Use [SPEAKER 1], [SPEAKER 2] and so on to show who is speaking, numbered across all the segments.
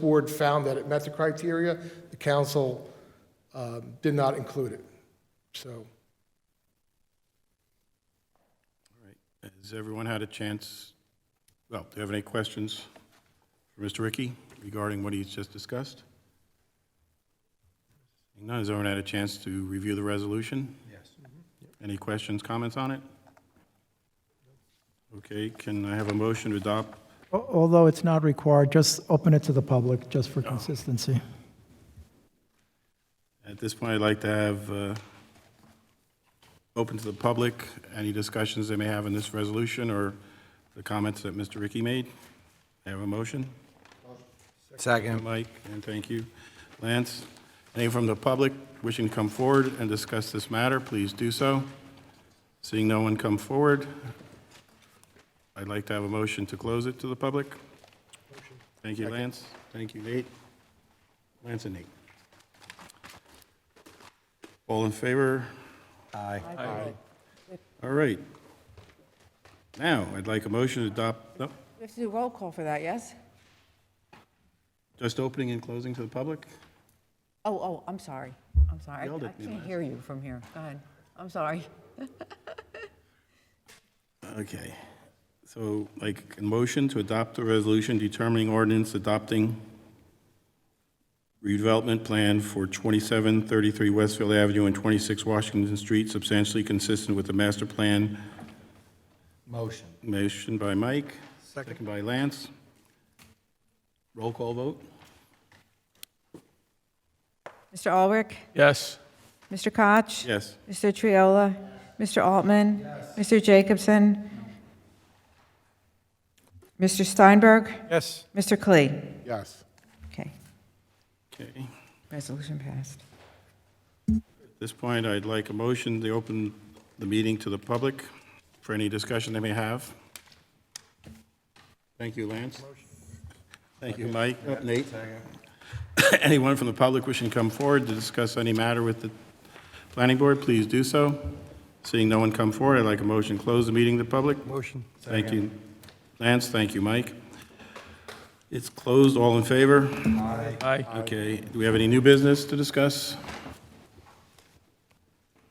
[SPEAKER 1] board found that it met the criteria, the council um, did not include it. So,
[SPEAKER 2] Has everyone had a chance, well, do you have any questions for Mr. Ricky regarding what he's just discussed? Seeing None, has everyone had a chance to review the resolution? Yes. Any questions, comments on it? Okay, can I have a motion to adopt?
[SPEAKER 3] Al- Although it's not required, just open it to the public, just for consistency.
[SPEAKER 2] At this point, I'd like to have, uh, open to the public, any discussions they may have on this resolution or the comments that Mr. Ricky made. May I have a motion?
[SPEAKER 4] Second.
[SPEAKER 2] Mike, and thank you. Lance, anyone from the public wishing to come forward and discuss this matter, please do so. Seeing no one come forward, I'd like to have a motion to close it to the public. Thank you, Lance. Thank you, Nate. Lance and Nate. All in favor?
[SPEAKER 4] Aye.
[SPEAKER 2] All right. Now, I'd like a motion to adopt, no,
[SPEAKER 5] We have to do roll call for that, yes?
[SPEAKER 2] just opening and closing to the public?
[SPEAKER 5] Oh, oh, I'm sorry. I'm sorry. I
[SPEAKER 2] Yelled
[SPEAKER 5] I
[SPEAKER 2] at me
[SPEAKER 5] can't
[SPEAKER 2] last
[SPEAKER 5] hear you from here. Go ahead. I'm sorry.
[SPEAKER 2] Okay, so like a motion to adopt a resolution determining ordinance adopting redevelopment plan for 2733 Westfield Avenue and 26 Washington Street substantially consistent with the master plan.
[SPEAKER 4] Motion.
[SPEAKER 2] Motion by Mike, second by Lance. Roll call vote?
[SPEAKER 5] Mr. Ulrich?
[SPEAKER 6] Yes.
[SPEAKER 5] Mr. Koch?
[SPEAKER 2] Yes.
[SPEAKER 5] Mr. Triola? Mr. Altman? Mr. Jacobson? Mr. Steinberg?
[SPEAKER 6] Yes.
[SPEAKER 5] Mr. Klee?
[SPEAKER 1] yes.
[SPEAKER 5] Okay,
[SPEAKER 2] Okay.
[SPEAKER 5] resolution passed.
[SPEAKER 2] At this point, I'd like a motion to open the meeting to the public for any discussion they may have. Thank you, Lance. Thank you, Mike. Uh, Nate? Anyone from the public wishing to come forward to discuss any matter with the planning board, please do so. Seeing no one come forward, I'd like a motion to close the meeting to the public.
[SPEAKER 4] Motion.
[SPEAKER 2] Thank you, Lance. Thank you, Mike. It's closed. All in favor?
[SPEAKER 6] Aye.
[SPEAKER 2] Okay, do we have any new business to discuss?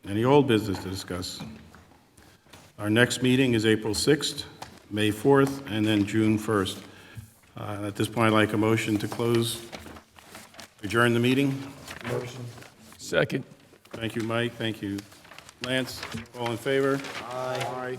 [SPEAKER 2] Any old business to discuss? Our next meeting is April 6th, May 4th, and then June 1st. Uh, At this point, I'd like a motion to close, adjourn the meeting.
[SPEAKER 6] Second.
[SPEAKER 2] Thank you, Mike, thank you, Lance. All in favor? Aye.